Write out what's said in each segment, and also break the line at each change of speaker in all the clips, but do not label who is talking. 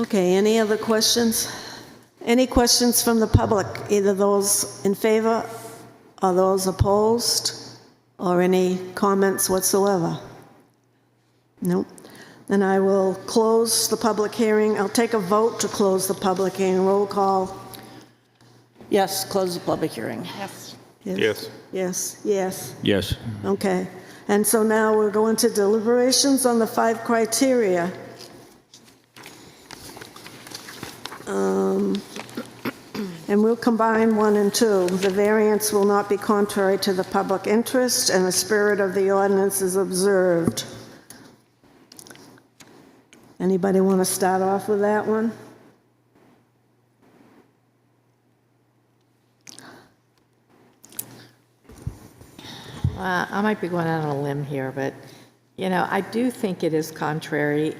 Okay, any other questions? Any questions from the public, either those in favor or those opposed, or any comments whatsoever? Nope. Then I will close the public hearing. I'll take a vote to close the public hearing. Roll call.
Yes, close the public hearing.
Yes.
Yes.
Yes, yes,
Yes.
okay. And so now we're going to deliberations on the five criteria. Um, And we'll combine one and two. The variance will not be contrary to the public interest, and the spirit of the ordinance is observed. Anybody want to start off with that one?
Uh, I might be going out on a limb here, but, you know, I do think it is contrary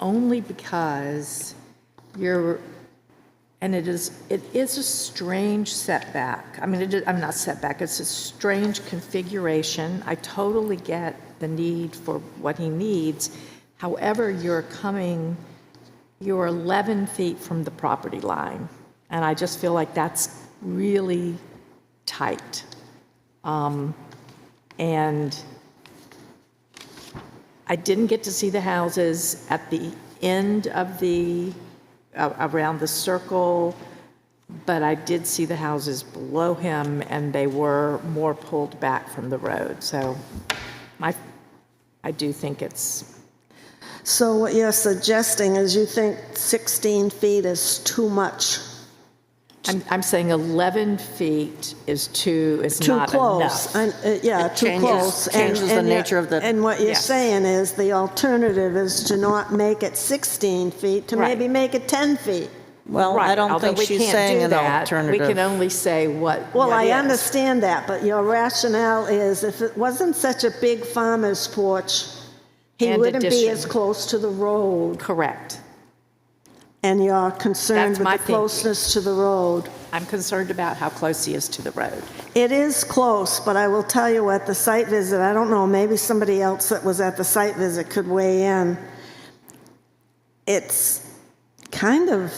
only because you're, and it is, it is a strange setback. I mean, it is, I'm not setback, it's a strange configuration. I totally get the need for what he needs. However, you're coming, you're 11 feet from the property line. And I just feel like that's really tight. And I didn't get to see the houses at the end of the, a- around the circle, but I did see the houses below him, and they were more pulled back from the road. So my, I do think it's,
So what you're suggesting is you think 16 feet is too much?
I'm, I'm saying 11 feet is too, is
too
not
close.
enough.
and, uh, Yeah,
It
too
changes-
close. And-
changes the
and you're-
nature of the-
And what you're
Yes.
saying is the alternative is to not make it 16 feet, to
Right.
maybe make it 10 feet.
Well, I
Right,
don't
although
think
we
she's
can't
saying
do
an
that. We can
alternative.
only say what.
Well,
what
I
is.
understand that, but your rationale is if it wasn't such a big farmer's porch, he
And
wouldn't be
addition.
as close to the road.
Correct.
And you're concerned
That's
with
my
the
thinking.
closeness to the road.
I'm concerned about how close he is to the road.
It is close, but I will tell you at the site visit, I don't know, maybe somebody else that was at the site visit could weigh in. It's kind of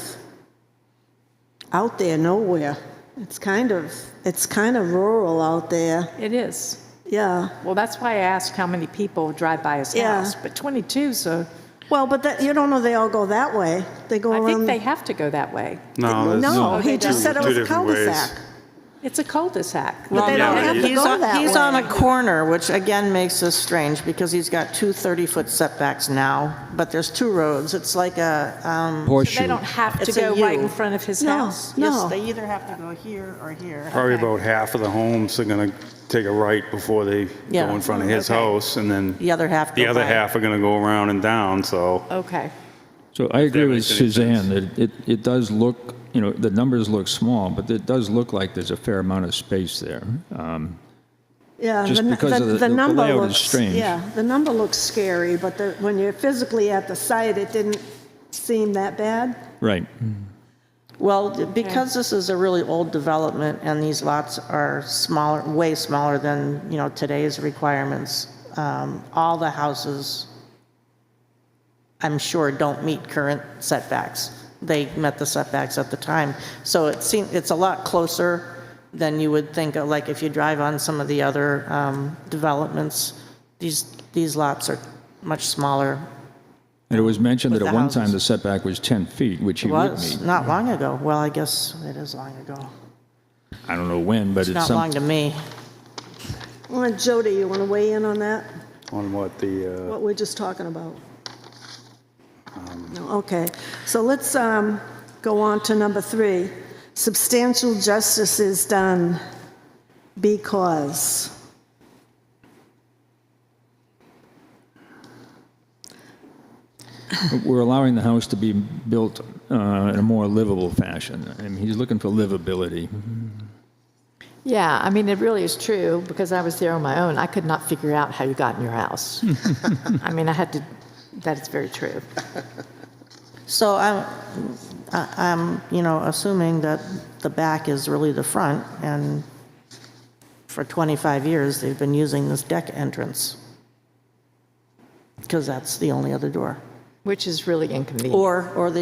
out there nowhere. It's kind of, it's kind of rural out there.
It is.
Yeah.
Well, that's why I asked how many people drive by his
Yeah.
house, but 22, so
Well, but that, you don't know they all go that way. They go
I think
around.
they have to go that way.
No, that's
No,
Oh,
he
they
just
don't.
said it was
Two
a
different ways.
cul-de-sac.
It's a cul-de-sac.
But they
Yeah,
don't
but
have to
he's
go that way.
He's on a corner, which again makes this strange, because he's got two 30-foot setbacks now, but there's two roads. It's like a, um,
They don't have to
It's a
go right
U.
in front of his
No.
house.
No.
yes, they either have to go here or here.
Probably about half of the homes are going to take a right before they go
Yeah.
in
Oh,
front of his
Okay.
house, and then
The other half
the
go
other
by.
half are going to go around and down, so.
Okay.
So I agree
That
with
makes any
Suzanne that it, it does look, you know, the numbers look small, but it does look like there's a fair amount of space there. Um,
Yeah,
Just
the,
because
the,
of the-
the,
the
number
layout is
looks,
strange.
Yeah, the number looks scary, but the, when you're physically at the site, it didn't seem that bad.
right.
Mm-hmm. Well, because this is a really old development and these lots are smaller, way smaller than, you know, today's requirements, um, all the houses, I'm sure, don't meet current setbacks. They met the setbacks at the time. So it seems, it's a lot closer than you would think, of. like if you drive on some of the other um, developments, these, these lots are much smaller.
And it was mentioned
With
that at
the
one time
houses.
the setback was 10 feet, which he
It
would
was
meet.
not long ago. Well, I guess it is long ago.
I don't know when,
It's
but
not
it's
long
some,
to me.
Well, Jody, you want to weigh in on that?
On what the, uh,
What we're just talking about?
Um.
No, okay, so let's um, go on to number three. Substantial justice is done because.
we're allowing the house to be built uh, in a more livable fashion. I mean, he's looking for livability.
Yeah, I mean, it really is true, because I was there on my own. I could not figure out how you got in your house. I mean, I had to, that is very true.
So I'm, I- I'm, you know, assuming that the back is really the front, and for 25 years, they've been using this deck entrance, because that's the only other door.
Which is really inconvenient.
Or, or they